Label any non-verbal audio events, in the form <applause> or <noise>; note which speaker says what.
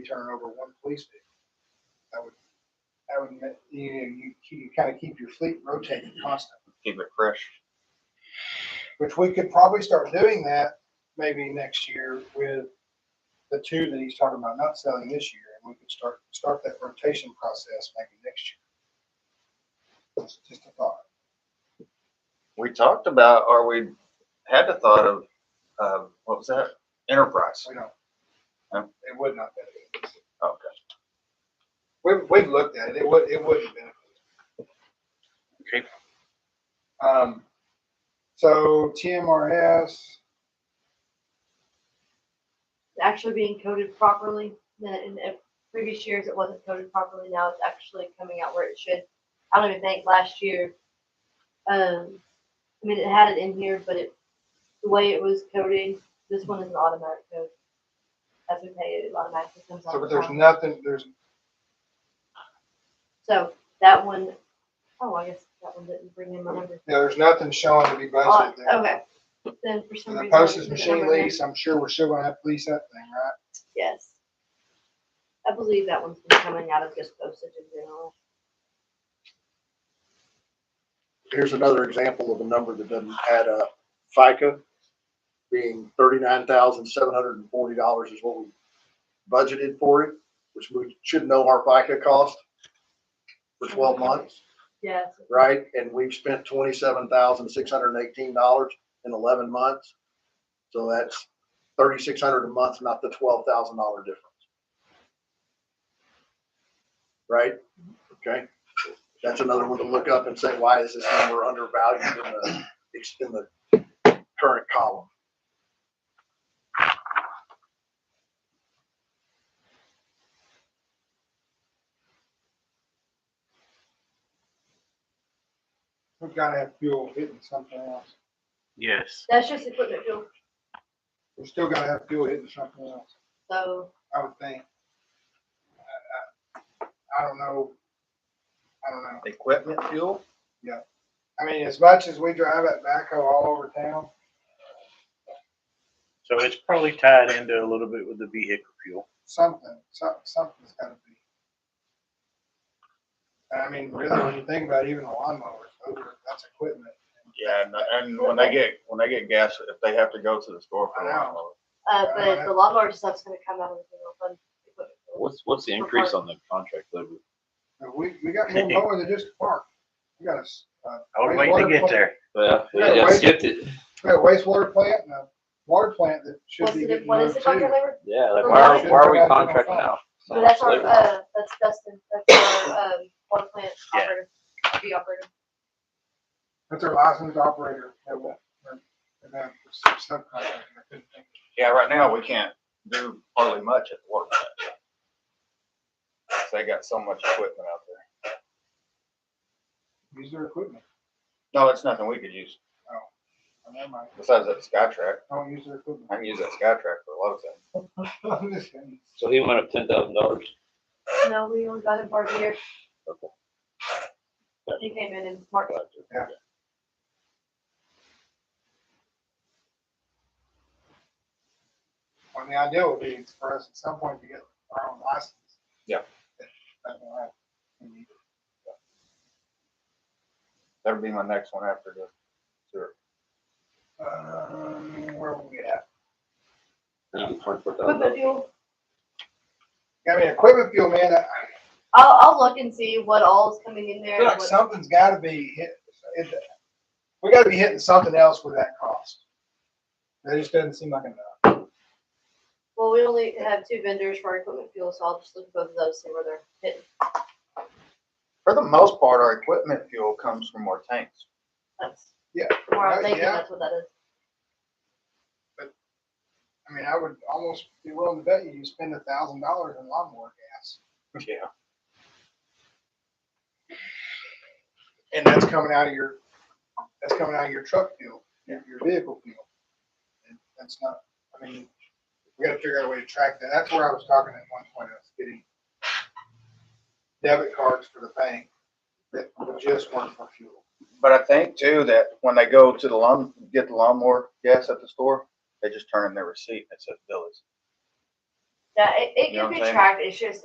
Speaker 1: be turning over one police vehicle. I would, I would, ma- you, you, you kind of keep your fleet rotating constantly.
Speaker 2: keep it fresh.
Speaker 1: Which we could probably start doing that maybe next year with the two that he's talking about not selling this year. And we could start, start that rotation process maybe next year. That's just a thought.
Speaker 2: We talked about, or we had the thought of, um, what was that? Enterprise.
Speaker 1: We don't.
Speaker 2: No.
Speaker 1: It would not benefit. us.
Speaker 2: Okay.
Speaker 1: We've, we've looked at it. It would, it wouldn't benefit.
Speaker 3: Okay.
Speaker 1: us. Um, so TMRS,
Speaker 4: actually being coded properly. That in the previous years, it wasn't coded properly. Now it's actually coming out where it should. I don't even think last year, um, I mean, it had it in here, but it, the way it was coded, this one is an automatic code. As we pay it, it automatically comes out.
Speaker 1: so
Speaker 4: of
Speaker 1: there's
Speaker 4: account.
Speaker 1: nothing, there's,
Speaker 4: So that one, oh, I guess that one didn't bring in my number.
Speaker 1: yeah, there's nothing showing to be
Speaker 4: Oh,
Speaker 1: budgeted there.
Speaker 4: Okay, then for
Speaker 1: And
Speaker 4: some
Speaker 1: the
Speaker 4: reason.
Speaker 1: post
Speaker 4: I
Speaker 1: is
Speaker 4: didn't put
Speaker 1: machine
Speaker 4: number in.
Speaker 1: lease, I'm sure we're still gonna have to lease that thing, right?
Speaker 4: Yes. I believe that one's been coming out of just postage in general.
Speaker 5: here's another example of a number that doesn't add up. FICA being thirty-nine thousand, seven hundred and forty dollars is what we budgeted for it, which we should know our FICA cost for twelve months,
Speaker 4: Yes,
Speaker 5: right? And we've spent twenty-seven thousand, six hundred and eighteen dollars in eleven months. So that's thirty-six hundred a month, not the twelve thousand dollar difference. Right? Okay, that's another one to look up and say, why is this number undervalued in the, it's in the current column?
Speaker 1: We've gotta have fuel hitting something else.
Speaker 3: Yes.
Speaker 4: that's just equipment fuel,
Speaker 1: We're still gonna have fuel hitting something else.
Speaker 4: so
Speaker 1: I would think. I- I- I don't know. I don't know.
Speaker 2: Equipment fuel?
Speaker 1: I mean, as much as we drive that backhoe all over town,
Speaker 3: So it's probably tied into a little bit with the vehicle fuel.
Speaker 1: something, some, something's gotta be. And I mean, really, when you think about it, even a lawnmower, it's over, that's equipment.
Speaker 2: Yeah, and, and when they get, when they get gas, if they have to go to the store for
Speaker 1: I know.
Speaker 2: one, well,
Speaker 4: uh,
Speaker 1: Uh,
Speaker 4: but the lawnmower stuff's gonna come out of the general fund. equipment fuel.
Speaker 6: What's, what's the
Speaker 4: For
Speaker 6: increase
Speaker 4: park.
Speaker 6: on the contract labor?
Speaker 1: But we, we got
Speaker 6: <laughs>
Speaker 1: more mowing than just park. We got a, s- uh,
Speaker 3: I was waiting to get there.
Speaker 6: Well,
Speaker 1: Yeah,
Speaker 6: yeah,
Speaker 1: right.
Speaker 6: skipped it.
Speaker 1: we got a wastewater plant and a water plant that should
Speaker 4: What's
Speaker 1: be
Speaker 4: the,
Speaker 1: getting
Speaker 4: diff- what
Speaker 1: mowed
Speaker 4: is the contract
Speaker 1: too.
Speaker 4: labor?
Speaker 6: Yeah, like
Speaker 4: The
Speaker 6: why are,
Speaker 4: lights-
Speaker 6: why are we
Speaker 1: Contract on
Speaker 6: contracting
Speaker 1: fire.
Speaker 6: out? so
Speaker 4: But that's
Speaker 6: much
Speaker 4: our,
Speaker 6: labor?
Speaker 4: uh, that's Dustin, that's our, um, water plant
Speaker 3: Yeah.
Speaker 4: operator, the operator.
Speaker 1: That's our licensed operator. that will- or- And then subcontractor, I couldn't think.
Speaker 2: yeah, right now, we can't do hardly much at the work. plant. They got so much equipment out there.
Speaker 1: of- Use their equipment.
Speaker 2: No, it's nothing we could use,
Speaker 1: Oh, Never mind.
Speaker 2: besides that Skytrack,
Speaker 1: Don't use their equipment. <laughs>
Speaker 2: I can use that Skytrack for a lot of things.
Speaker 1: I'm just kidding.
Speaker 6: So he went up ten thousand dollars.
Speaker 4: No, we only got him for a year.
Speaker 6: Okay.
Speaker 4: He came in in March.
Speaker 1: I mean, the idea would be for us at some point to get our own license.
Speaker 2: Yeah.
Speaker 1: That's all right. I mean,
Speaker 2: That'd be my next one after the sewer.
Speaker 1: um, Where were we at?
Speaker 4: Equipment fuel,
Speaker 1: I mean, equipment fuel, man, I
Speaker 4: I'll, I'll look and see what all's coming in
Speaker 1: I
Speaker 4: there.
Speaker 1: feel
Speaker 4: and
Speaker 1: like
Speaker 4: what-
Speaker 1: something's gotta be hit. it- We gotta be hitting something else with that cost. That just doesn't seem like enough.
Speaker 4: Well, we only have two vendors for our equipment fuel, so I'll just look at both of those, see where they're hitting.
Speaker 2: For the most part, our equipment fuel comes from our tanks.
Speaker 4: That's,
Speaker 1: Yeah.
Speaker 4: from where I'm
Speaker 1: Right,
Speaker 4: thinking,
Speaker 1: yeah.
Speaker 4: that's what that is.
Speaker 1: I mean, I would almost be willing to bet you, you spend a thousand dollars in lawnmower gas.
Speaker 2: Yeah.
Speaker 1: And that's coming out of your, that's coming out of your truck fuel, your, your vehicle fuel. And that's not, I mean, we gotta figure out a way to track that. That's where I was talking at one point, I was getting debit cards for the bank that just weren't for fuel.
Speaker 2: But I think too that when they go to the lawn, get the lawnmower gas at the store, they just turn in their receipt that says Billy's.
Speaker 4: Yeah, it, it
Speaker 2: You know
Speaker 4: can
Speaker 2: what
Speaker 4: be
Speaker 2: I'm saying?
Speaker 4: tracked, it's just